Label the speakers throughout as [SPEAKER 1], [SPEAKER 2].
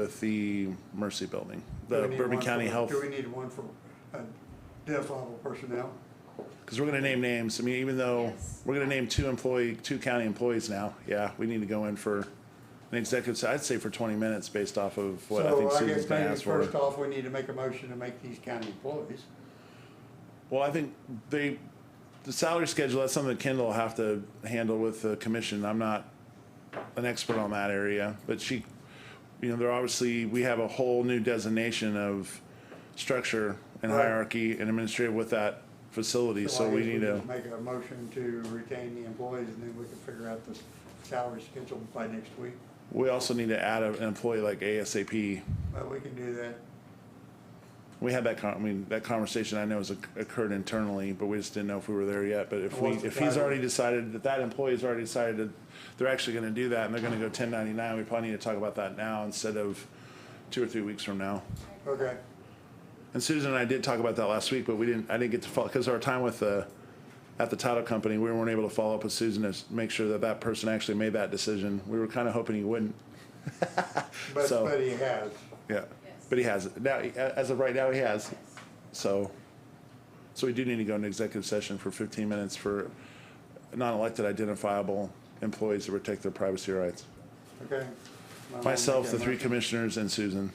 [SPEAKER 1] with the Mercy Building,
[SPEAKER 2] Do
[SPEAKER 1] the
[SPEAKER 2] we need
[SPEAKER 1] Bourbon
[SPEAKER 2] one
[SPEAKER 1] County
[SPEAKER 2] for-
[SPEAKER 1] Health,
[SPEAKER 2] Do we need one for uh, deaf level personnel?
[SPEAKER 1] because we're gonna name names. I mean, even though
[SPEAKER 3] Yes.
[SPEAKER 1] we're gonna name two employee, two county employees now, yeah, we need to go in for an executive, se- I'd say for twenty minutes based off of what I
[SPEAKER 2] So
[SPEAKER 1] think Susan's
[SPEAKER 2] guess
[SPEAKER 1] gonna
[SPEAKER 2] maybe
[SPEAKER 1] ask for.
[SPEAKER 2] First off, we need to make a motion to make these county employees.
[SPEAKER 1] Well, I think they, the salary schedule, that's something Kendall will have to handle with the commission. I'm not an expert on that area, but she, you know, they're obviously, we have a whole new designation of structure and
[SPEAKER 2] Right.
[SPEAKER 1] hierarchy and administrative with that facility, so
[SPEAKER 2] I
[SPEAKER 1] we
[SPEAKER 2] guess
[SPEAKER 1] need to,
[SPEAKER 2] just Make a motion to retain the employees and then we can figure out the salary schedule by next week.
[SPEAKER 1] we also need to add a- an employee like ASAP.
[SPEAKER 2] But we can do that.
[SPEAKER 1] We had that con, I mean, that conversation I know has occ- occurred internally, but we just didn't know if we were there yet. But if we,
[SPEAKER 2] What's the
[SPEAKER 1] if he's
[SPEAKER 2] title?
[SPEAKER 1] already decided, that that employee's already decided that they're actually gonna do that and they're gonna go ten ninety-nine, we probably need to talk about that now instead of two or three weeks from now.
[SPEAKER 2] Okay,
[SPEAKER 1] And Susan and I did talk about that last week, but we didn't, I didn't get to follow, because our time with the, at the title company, we weren't able to follow up with Susan to s- make sure that that person actually made that decision. We were kinda hoping he wouldn't,
[SPEAKER 2] but,
[SPEAKER 1] So-
[SPEAKER 2] but he has.
[SPEAKER 1] yeah.
[SPEAKER 3] Yes.
[SPEAKER 1] But he has, it. now, he- a- as of right now, he has.
[SPEAKER 3] Yes.
[SPEAKER 1] So, so we do need to go into executive session for fifteen minutes for non-elected identifiable employees to protect their privacy rights.
[SPEAKER 2] Okay.
[SPEAKER 1] Myself, the three
[SPEAKER 2] committees.
[SPEAKER 1] commissioners, and Susan.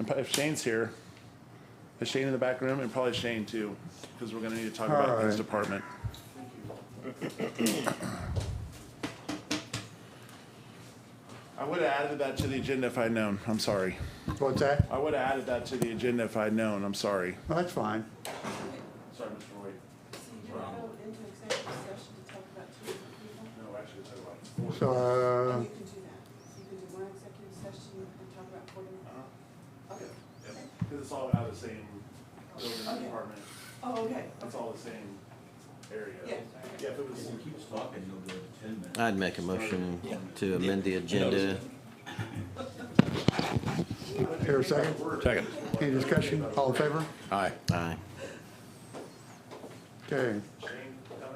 [SPEAKER 1] And pro- if Shane's here, is Shane in the back room? And probably Shane too, because we're gonna need to talk about his
[SPEAKER 2] Alright.
[SPEAKER 1] department. I would have added that to the agenda if I'd known. I'm sorry.
[SPEAKER 2] What's that?
[SPEAKER 1] I would have added that to the agenda if I'd known. I'm sorry.
[SPEAKER 2] Well, That's fine.
[SPEAKER 1] Sorry, Mr. Roy.
[SPEAKER 3] So you don't go into executive session to talk about two different people?
[SPEAKER 1] No, actually, it's about
[SPEAKER 2] So, uh,
[SPEAKER 3] You can do that. You can do one executive session and talk about four different. Okay.
[SPEAKER 1] Because Uh-huh. it's all out of the same building department,
[SPEAKER 3] Oh, okay.
[SPEAKER 1] it's all the same area.
[SPEAKER 3] Yeah.
[SPEAKER 1] Yeah, if it was,
[SPEAKER 4] If you keep us talking, you'll be at ten minutes.
[SPEAKER 5] I'd make a motion to amend the agenda.
[SPEAKER 2] uh, here a second.
[SPEAKER 5] Second.
[SPEAKER 2] Any discussion? All in favor?
[SPEAKER 5] Aye. Aye.
[SPEAKER 2] Okay.
[SPEAKER 1] Shane coming?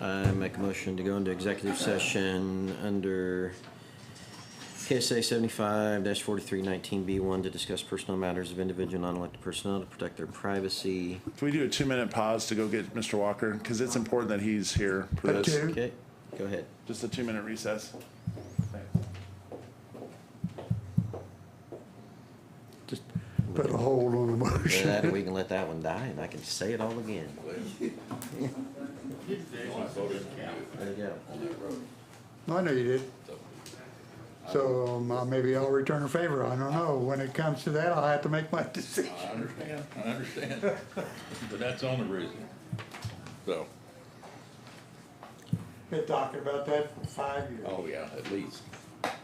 [SPEAKER 5] I make a motion to go into executive session under KSA seventy-five forty-three nineteen B one to discuss personal matters of individual non-elected personnel to protect their privacy.
[SPEAKER 1] Can we do a two-minute pause to go get Mr. Walker? Because it's important that he's here for
[SPEAKER 2] At
[SPEAKER 1] this.
[SPEAKER 2] two.
[SPEAKER 5] Okay, go ahead.
[SPEAKER 1] Just a two-minute recess.
[SPEAKER 2] Just put a hold on the
[SPEAKER 5] After
[SPEAKER 2] motion.
[SPEAKER 5] that, we can let that one die and I can say it all again. There you go.
[SPEAKER 2] I know you did. So um, uh, maybe I'll return a favor. I don't know. When it comes to that, I'll have to make my decision.
[SPEAKER 4] I understand, I understand, but that's the only reason, so,
[SPEAKER 2] Been talking about that for five years.
[SPEAKER 4] oh yeah, at least. But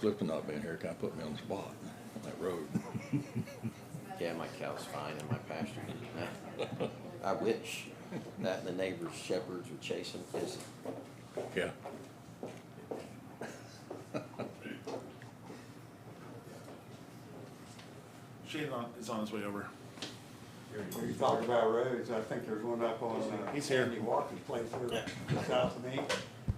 [SPEAKER 4] Clifton not being here, kind of put me on the spot, on that road.
[SPEAKER 5] Yeah, my cow's fine and my pasture. I wish that the neighbor's shepherds would chase them. Yes.
[SPEAKER 4] Yeah.
[SPEAKER 1] Shane on- is on his way over.
[SPEAKER 2] When you talk about roads, I think there's one up on uh,
[SPEAKER 1] He's here.
[SPEAKER 2] Andy Walker's place here, south of me.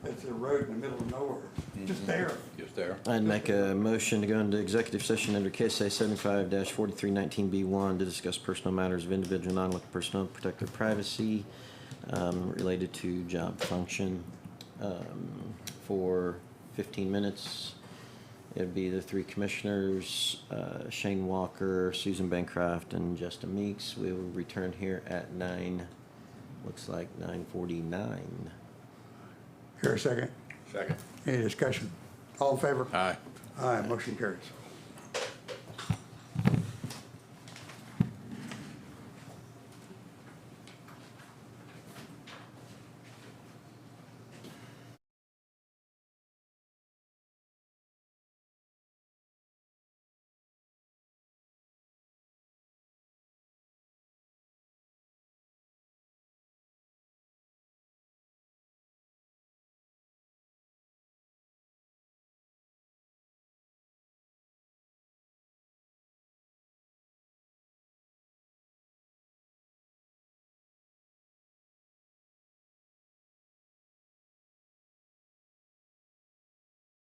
[SPEAKER 2] It's a road in the middle of nowhere, just there.
[SPEAKER 4] Just there,
[SPEAKER 5] I'd make a motion to go into executive session under KSA seventy-five forty-three nineteen B one to discuss personal matters of individual non-elected personnel, protect their privacy, um, related to job function, um, for fifteen minutes. It'd be the three commissioners, uh, Shane Walker, Susan Bancroft, and Justin Meeks. We will return here at nine, looks like nine forty-nine.
[SPEAKER 2] Here a second.
[SPEAKER 4] second.
[SPEAKER 2] Any discussion? All in favor?
[SPEAKER 4] Aye.
[SPEAKER 2] Aye, motion carries.